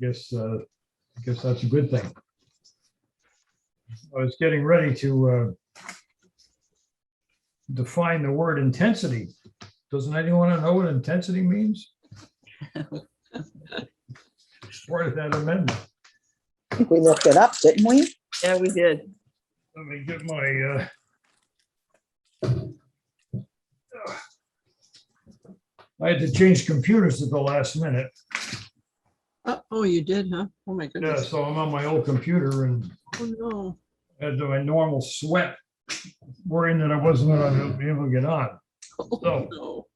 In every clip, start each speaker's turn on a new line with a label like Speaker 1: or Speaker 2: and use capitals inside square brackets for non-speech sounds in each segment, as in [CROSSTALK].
Speaker 1: guess, uh, I guess that's a good thing. I was getting ready to uh, define the word intensity. Doesn't anyone know what intensity means? It's Part of that amendment.
Speaker 2: I think we looked it up, didn't we?
Speaker 3: Yeah, we did.
Speaker 1: Let me get my, uh, I had to change computers at the last minute.
Speaker 4: Oh, oh, you did, huh? Oh, my
Speaker 1: Yeah,
Speaker 4: goodness.
Speaker 1: so I'm on my old computer and
Speaker 4: Oh, no.
Speaker 1: had my normal sweat, worrying that I wasn't gonna be able to get on.
Speaker 4: Oh,
Speaker 1: So-
Speaker 4: no.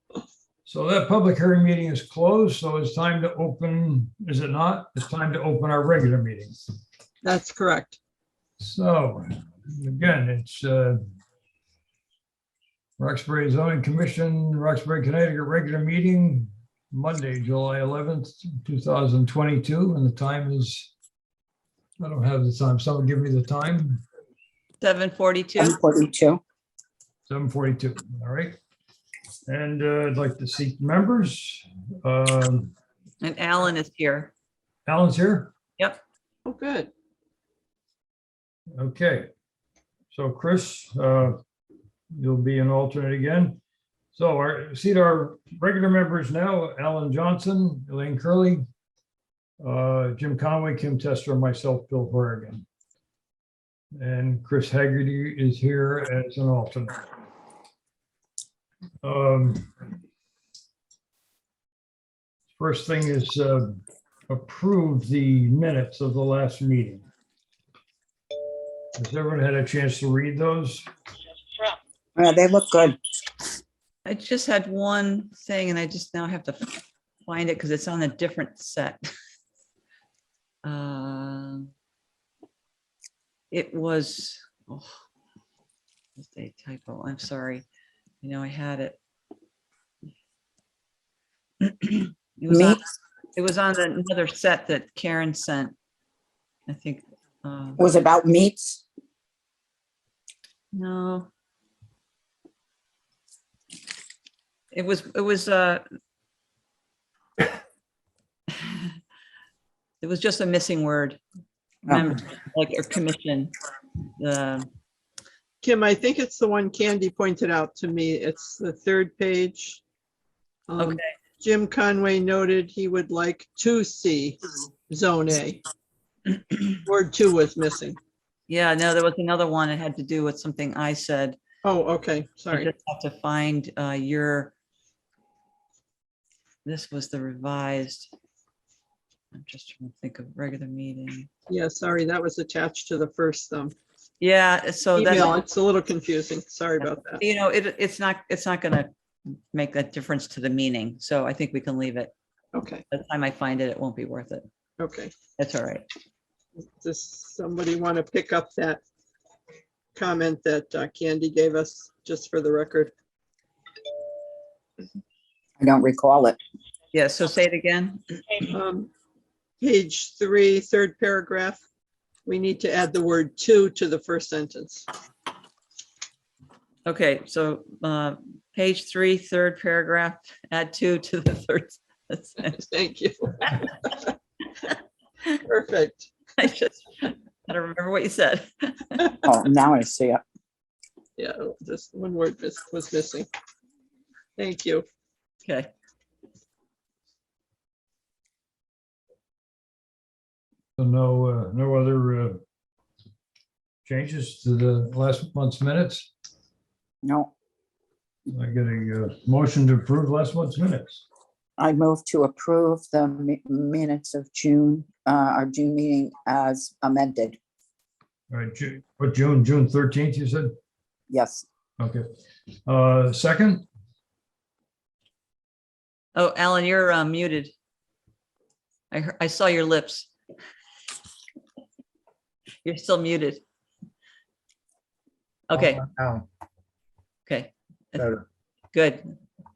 Speaker 1: So that public hearing meeting is closed, so it's time to open, is it not? It's time to open our regular meeting.
Speaker 4: That's correct.
Speaker 1: So, again, it's uh, Roxbury zoning commission, Roxbury, Connecticut, regular meeting, Monday, July 11th, 2022, and the time is, I don't have the time, someone give me the time,
Speaker 3: Seven forty-two.
Speaker 2: 142.
Speaker 1: 7:42, all right? And uh, I'd like to seek members. Um,
Speaker 3: And Alan is here.
Speaker 1: Alan's here?
Speaker 4: Oh, good.
Speaker 1: Okay. So Chris, uh, you'll be an alternate again. So our, seat our regular members now, Alan Johnson, Elaine Curley, uh, Jim Conway, Kim Tester, and myself, Bill Horrigan. And Chris Haggerty is here as an alternate. Um, First thing is uh, approve the minutes of the last meeting. Has everyone had a chance to read those?
Speaker 2: Yeah, they look good.
Speaker 3: I just had one thing and I just now have to find it because it's on a different set. [LAUGHS] Um, It was, oh, it's a typo. I'm sorry. You know, I had it. It was
Speaker 2: Me?
Speaker 3: on- it was on another set that Karen sent. I think, uh,
Speaker 2: It was about meats.
Speaker 3: no. It was, it was, uh, [LAUGHS] it was just a missing word.
Speaker 4: Oh.
Speaker 2: Oh,
Speaker 3: Remember, Like a commission, the,
Speaker 4: Kim, I think it's the one Candy pointed out to me. It's the third page. Um,
Speaker 3: Okay.
Speaker 4: Jim Conway noted he would like to see Zone
Speaker 3: [CLEARS THROAT]
Speaker 4: A. Word two was missing.
Speaker 3: yeah, no, there was another one. It had to do with something I said.
Speaker 4: Oh, okay,
Speaker 3: I
Speaker 4: sorry.
Speaker 3: just have to find, uh, your, this was the revised. I'm just trying to think of regular meeting.
Speaker 4: Yeah, sorry, that was attached to the first um,
Speaker 3: Yeah, so that's.
Speaker 4: email. It's a little confusing. Sorry about that.
Speaker 3: you know, it, it's not, it's not gonna make that difference to the meaning, so I think we can leave it.
Speaker 4: Okay,
Speaker 3: By the time I find it, it won't be worth it.
Speaker 4: okay.
Speaker 3: That's all right.
Speaker 4: Does somebody want to pick up that comment that uh, Candy gave us, just for the record?
Speaker 2: I don't recall it.
Speaker 3: Yeah, so say it again.
Speaker 4: Um, Page three, third paragraph, we need to add the word "to" to the first sentence. [LAUGHS]
Speaker 3: Okay, so, uh, page three, third paragraph, add two to the third. sentence. [LAUGHS]
Speaker 4: Thank you. Perfect.
Speaker 3: I just, I don't remember what you said.
Speaker 2: Oh, now I see it.
Speaker 4: Yeah, just one word mis- was missing. Thank you.
Speaker 3: Okay.
Speaker 1: So no, uh, no other uh, changes to the last month's minutes?
Speaker 2: No,
Speaker 1: I get a uh, motion to approve last month's minutes.
Speaker 2: I move to approve the mi- minutes of June, uh, our June meeting as amended.
Speaker 1: All right, Ju- what, June, June 13th, you said?
Speaker 2: Yes,
Speaker 1: Okay. Uh, Second,
Speaker 3: Oh, Alan, you're uh, muted. I, hear- I saw your lips. You're still muted. Okay,
Speaker 5: Down,
Speaker 3: okay,
Speaker 5: better.
Speaker 3: good.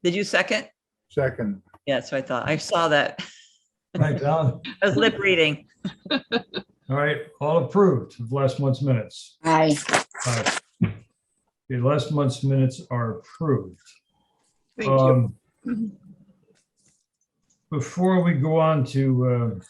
Speaker 3: Did you second?
Speaker 5: Second,
Speaker 3: Yeah, that's what I thought. I saw that. [LAUGHS]
Speaker 1: thanks, Alan.
Speaker 3: I was lip reading.
Speaker 1: All right, all approved of last month's minutes.
Speaker 2: I,
Speaker 1: Aye. The last month's minutes are approved.
Speaker 4: Thank you.
Speaker 1: Um, Before we go on to